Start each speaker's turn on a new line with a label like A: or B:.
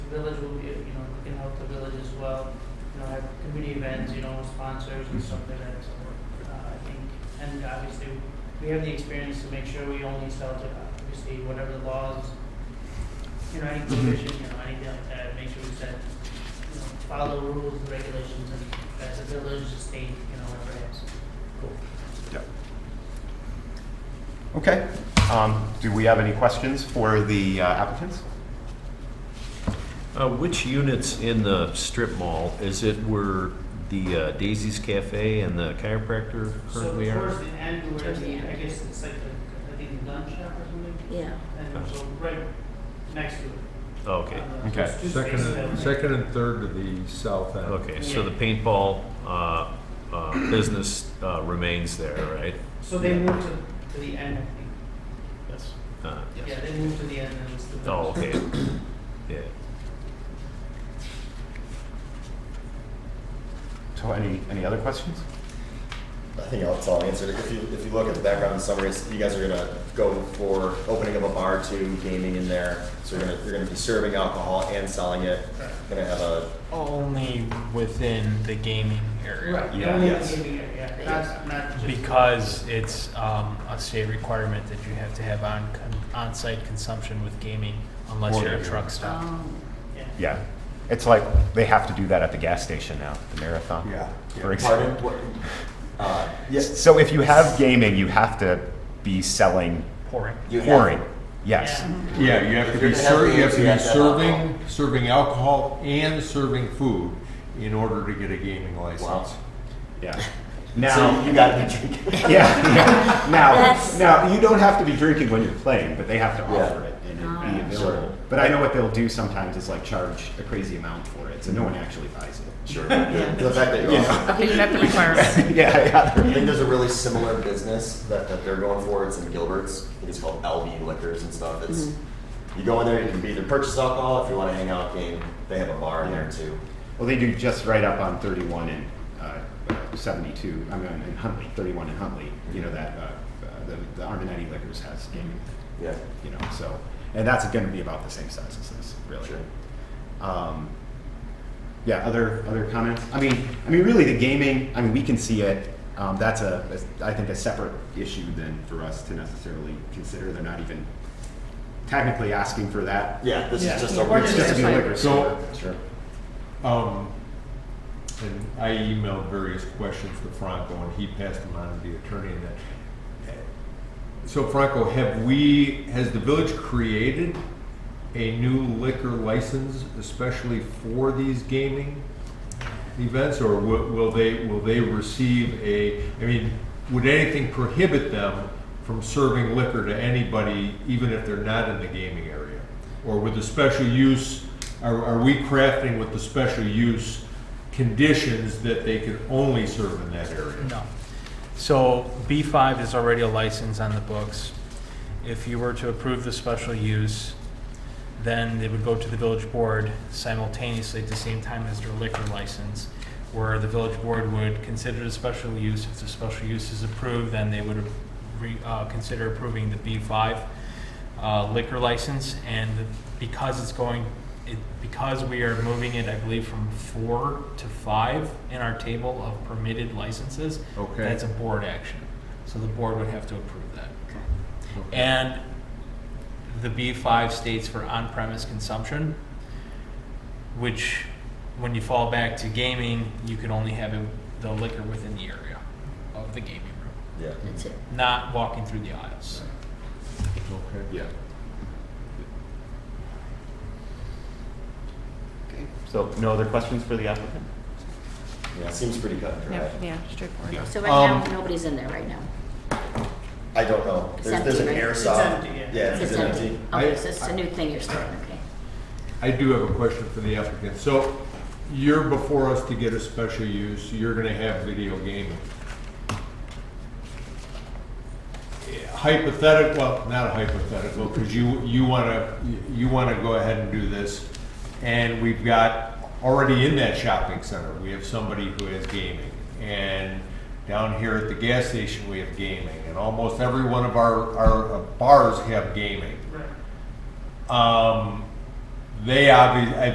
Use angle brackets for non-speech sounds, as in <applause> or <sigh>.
A: village will be, you know, can help the village as well. You know, have community events, you know, sponsors and stuff like that, so, uh, I think, and obviously, we have the experience to make sure we only sell to, obviously, whatever the laws, you know, any provision, you know, anything like that, make sure we set, you know, follow rules, and regulations, and as a village, a state, you know, whatever it is.
B: Yep. Okay, um, do we have any questions for the uh, applicants?
C: Uh, Which units in the strip mall, is it where the uh, Daisy's Cafe and the chiropractor
A: So
C: currently
A: towards
C: are?
A: the end, we're
D: Towards
A: at the,
D: the
A: I
D: end.
A: guess it's like, the- I think lunch shop or something,
D: Yeah.
A: and so right next to it.
C: Oh, Okay,
A: Uh, so
B: Okay.
A: it's two
E: Second,
A: spaces that
E: and-
A: way.
E: second and third to the south end.
C: okay, so the
A: Yeah.
C: paintball uh, uh, business uh, remains there, right?
A: So they moved to, to the end, I think.
C: Yes. Uh,
A: Yeah, they moved to the end and it's the.
C: Oh, okay, yeah.
B: So any, any other questions?
F: I think that's all answered. If you, if you look at the background summaries, you guys are gonna go for opening up a bar to gaming in there. So you're gonna, you're gonna be serving alcohol and selling it. Gonna have a,
G: Only within the gaming area.
A: Right,
B: Yeah.
A: only the
F: Yes.
A: gaming area, yeah, not, not just.
G: Because it's um, a state requirement that you have to have on on-site consumption with gaming unless
B: Or-
G: you're a truck stop.
A: Yeah.
B: Yeah, it's like, they have to do that at the gas station now, the marathon. For example.
F: pardon? What- Uh, yes,
B: So if you have gaming, you have to be selling
G: Pouring.
F: You have-
B: pouring, yes.
A: Yeah.
E: Yeah, you have to be
F: You're gonna
E: serving, you
F: have
E: have
F: to
E: to be
F: use that
E: serving,
F: alcohol.
E: serving alcohol and serving food in order to get a gaming license.
B: Yeah.
F: so you
B: Now,
F: gotta be drinking. <laughs>
B: yeah, yeah. now,
D: <laughs> That's-
B: now, you don't have to be drinking when you're playing, but they have to
F: Yeah.
B: offer it and it'd
D: Ah.
B: be available. But I know what they'll do sometimes is like charge a crazy amount for it, so no one actually buys it.
D: <laughs>
B: <laughs>
F: Sure. The fact that you're
B: Yeah.
F: also-
D: Okay, you met the requirement.
B: Yeah, yeah.
F: I think there's a really similar business that, that they're going for. It's in Gilbert's. I think it's called LB Liquors and stuff. It's you go in there, you can either purchase alcohol if you want to hang out, game. They have a bar in there too.
B: Well, they do just right up on 31 and uh, uh, 72, I mean, in Huntley, 31 and Huntley, you know, that, uh, uh, the the Arminetti Liquors has gaming,
F: Yeah,
B: you know, so, and that's going to be about the same size as this, really.
F: sure.
B: Um, yeah, other, other comments? I mean, I mean, really, the gaming, I mean, we can see it, um, that's a, a- I think, a separate issue than for us to necessarily consider, they're not even technically asking for that.
F: Yeah, this
A: Yeah.
F: is just
A: Yeah,
F: a
A: we're
B: It's just a
A: Yeah.
B: liquor store. Sure.
E: Um, and I emailed various questions to Franco, and he passed them on to the attorney. And that. So, Franco, have we? Has the village created a new liquor license, especially for these gaming events, or will, will they will they receive a? I mean, would anything prohibit them from serving liquor to anybody, even if they're not in the gaming area, or with the special use? Are, are we crafting with the special use conditions that they can only serve in that area?
G: No. So B5 is already a license on the books. If you were to approve the special use, then it would go to the village board simultaneously at the same time as their liquor license, where the village board would consider the special use. If the special use is approved, then they would re- uh, consider approving the B5 uh, liquor license. And because it's going, it- because we are moving it, I believe, from four to five in our table of permitted licenses,
E: Okay.
G: that's a board action. So the board would have to approve that. And the B5 states for on-premise consumption, which, when you fall back to gaming, you can only have it- the liquor within the area of the gaming room,
F: Yeah.
D: That's it.
G: not walking through the aisles.
E: Okay.
B: Yeah. So no other questions for the applicant?
F: Yeah, it seems pretty cut and dry.
H: Yeah, straightforward.
B: Yeah.
D: So right now,
E: Um,
D: nobody's in there right now.
F: I don't know.
D: It's
F: There's, there's an
D: empty, right?
A: It's
F: airsoft.
A: empty, yeah.
F: Yeah, it's,
D: It's
F: empty.
D: empty.
E: I-
D: Okay, so it's a new thing you're starting, okay.
E: I do have a question for the applicant. So you're before us to get a special use, you're gonna have video gaming. Hypothetical, well, not hypothetical, because you, you wanna, you wanna go ahead and do this. And we've got, already in that shopping center, we have somebody who has gaming. And down here at the gas station, we have gaming. And almost every one of our, our bars have gaming.
A: Right.
E: Um, they obvi, I